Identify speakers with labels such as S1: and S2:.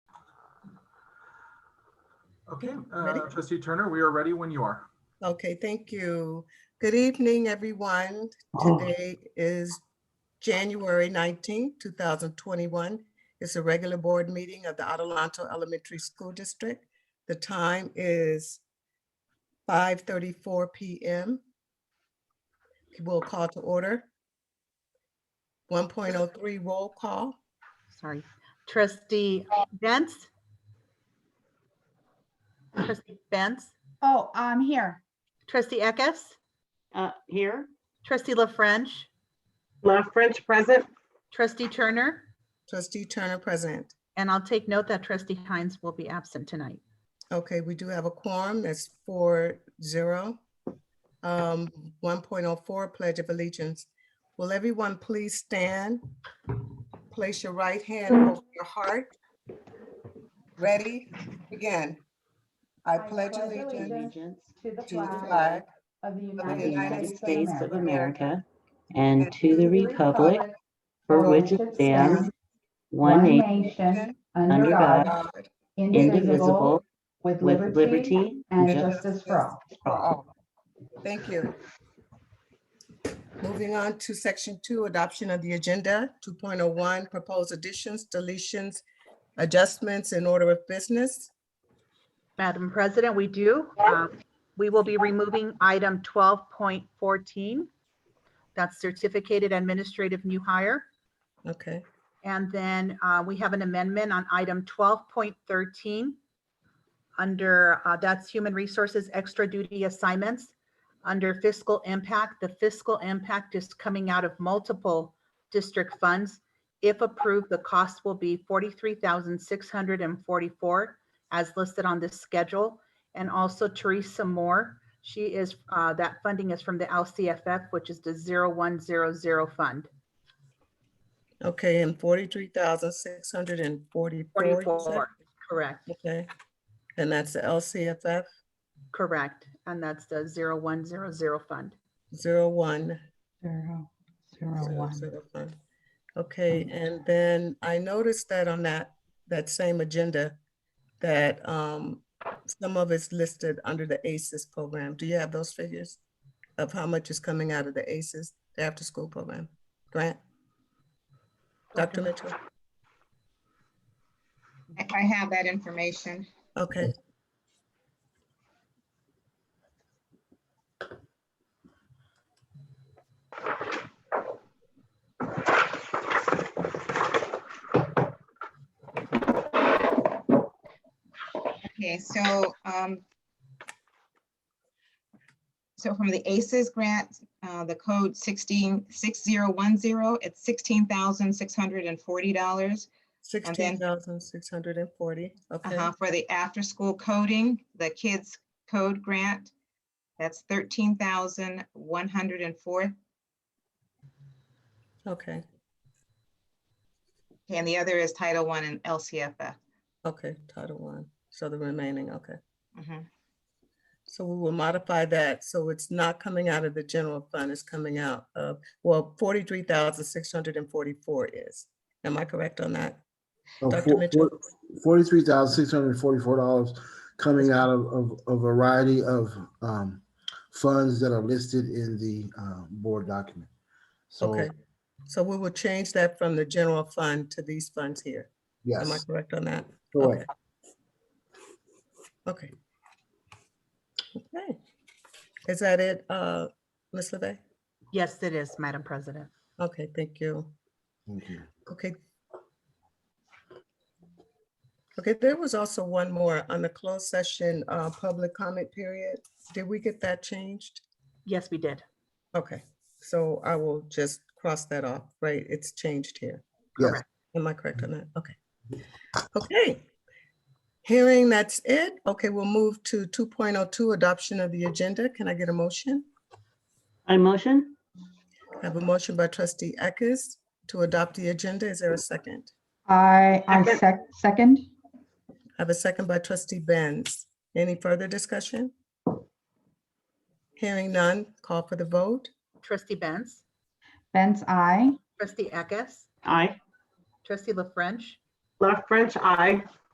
S1: Okay,
S2: Ready?
S1: uh, trustee Turner, we are ready when you are.
S2: Okay, thank you. Good evening, everyone. Today is January 19, 2021. It's a regular board meeting of the Adelanto Elementary School District. The time is 5:34 PM. We'll call to order. 1.03 roll call.
S3: Sorry. Trustee Benz? Trustee Benz?
S4: Oh, I'm here.
S3: Trustee Eckes?
S5: Uh, here,
S3: Trustee La French?
S6: La French present.
S3: Trustee Turner?
S2: Trustee Turner present.
S3: And I'll take note that trustee Hines will be absent tonight.
S2: Okay, we do have a quorum. That's four zero. Um, one point oh four, Pledge of Allegiance. Will everyone please stand? Place your right hand over your heart. Ready? Begin. I pledge allegiance
S5: allegiance
S4: To the
S2: to the flag
S4: flag of the
S5: of the United States of
S4: America.
S5: America and to the republic for which it stands, one
S4: One
S5: nation,
S4: nation,
S5: under
S4: under God,
S2: God,
S4: indivisible,
S5: indivisible,
S4: with
S5: with
S4: liberty
S5: liberty
S4: and justice for all.
S2: for all. Thank you. Moving on to section two, adoption of the agenda, two point oh one, proposed additions, deletions, adjustments in order of business.
S3: Madam President, we do. um, We will be removing item 12.14. That's certificated administrative new hire.
S2: Okay,
S3: And then uh, we have an amendment on item 12.13. Under, uh, that's human resources extra duty assignments. Under fiscal impact, the fiscal impact is coming out of multiple district funds. If approved, the cost will be 43,644 as listed on this schedule. And also Teresa Moore, she is, uh, that funding is from the LCFF, which is the 0100 fund.
S2: okay, and forty-three thousand six hundred and forty-four. you said?
S3: 44, correct.
S2: Okay, and that's the LCFF
S3: Correct, and that's the 0100 fund.
S2: zero one.
S4: Zero,
S2: zero, zero fund. Okay, and then I noticed that on that, that same agenda, that um, some of it's listed under the ACES program. Do you have those figures? Of how much is coming out of the ACES, the after-school program grant? Dr. Mitchell?
S7: If I have that information,
S2: Okay.
S7: okay, so, um, so from the ACES grant, uh, the code sixteen, six zero one zero, it's sixteen thousand six hundred and forty dollars. then-
S2: Sixteen thousand six hundred and forty, okay,
S7: Uh-huh, For the after-school coding, the kids code grant, that's thirteen thousand one hundred and four.
S2: okay,
S7: And the other is Title One and LCFF.
S2: okay, Title One, so the remaining, okay.
S7: Mhm.
S2: So we will modify that, so it's not coming out of the general fund, it's coming out of, well, forty-three thousand six hundred and forty-four is. Am I correct on that? Dr. Mitchell?
S8: Oh, Forty-three thousand six hundred and forty-four dollars coming out of, of a variety of um, funds that are listed in the uh, board document. So,
S2: Okay, so we will change that from the general fund to these funds here. Am I
S8: yes,
S2: correct on that?
S8: correct.
S2: Okay. Okay. Is that it, uh, Ms. LeVey?
S3: Yes, it is, Madam President.
S2: Okay, thank you.
S8: Thank you.
S2: Okay. Okay, there was also one more on the closed session, uh, public comment period. Did we get that changed?
S3: Yes, we did.
S2: Okay, so I will just cross that off, right? It's changed here.
S8: Yes.
S3: Correct.
S2: Am I correct on that? Okay. Okay. Hearing that's it. Okay, we'll move to two point oh two, adoption of the agenda. Can I get a motion?
S5: On motion,
S2: I have a motion by trustee Eckes to adopt the agenda. Is there a second?
S4: I, I sec- second.
S2: I have a second by trustee Benz. Any further discussion? Hearing none, call for the vote.
S3: Trustee Benz,
S4: Benz, I.
S3: trustee Eckes,
S5: aye.
S3: trustee La French,
S6: La French, I.